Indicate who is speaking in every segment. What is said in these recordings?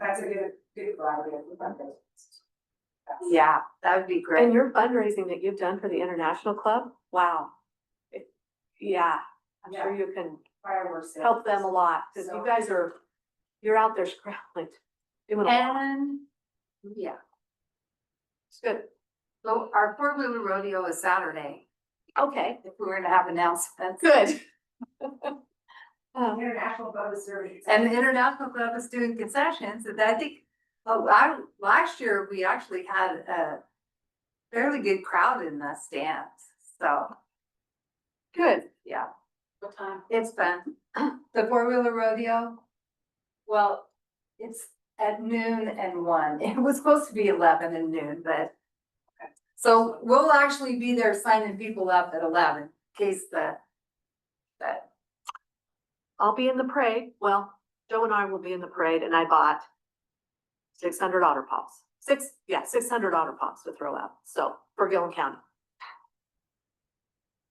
Speaker 1: that's a good, good idea for fundraisers.
Speaker 2: Yeah, that would be
Speaker 3: And
Speaker 2: great.
Speaker 3: your fundraising that you've done for the international club, wow. It- Yeah, I'm sure you can
Speaker 1: Fireworks. sales.
Speaker 3: help them a lot, because you guys are, you're out there scrambling, doing a lot.
Speaker 2: And, yeah,
Speaker 3: It's good.
Speaker 2: so our four wheeler rodeo is Saturday,
Speaker 3: Okay,
Speaker 2: if we were to have announcements.
Speaker 3: good. Um,
Speaker 1: International boat service.
Speaker 2: And the International Club is doing concessions, and I think, oh, I, last year, we actually had a fairly good crowd in the stands, so,
Speaker 3: Good.
Speaker 2: yeah.
Speaker 1: What time?
Speaker 2: It's fun. The four wheeler rodeo. Well, it's at noon and one. It was supposed to be eleven and noon, but. So we'll actually be there signing people up at eleven, in case the. But
Speaker 3: I'll be in the parade. Well, Joe and I will be in the parade and I bought six hundred otter pops, six, yeah, six hundred otter pops to throw out. So for Gillen County.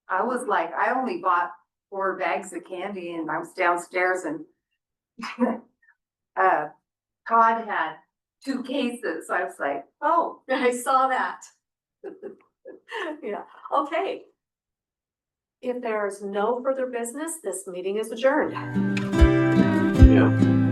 Speaker 2: I was like, I only bought four bags of candy and I was downstairs and. Uh, Todd had two cases. I was like, oh,
Speaker 3: I saw that. Yeah, okay. If there is no further business, this meeting is adjourned.
Speaker 4: Yeah.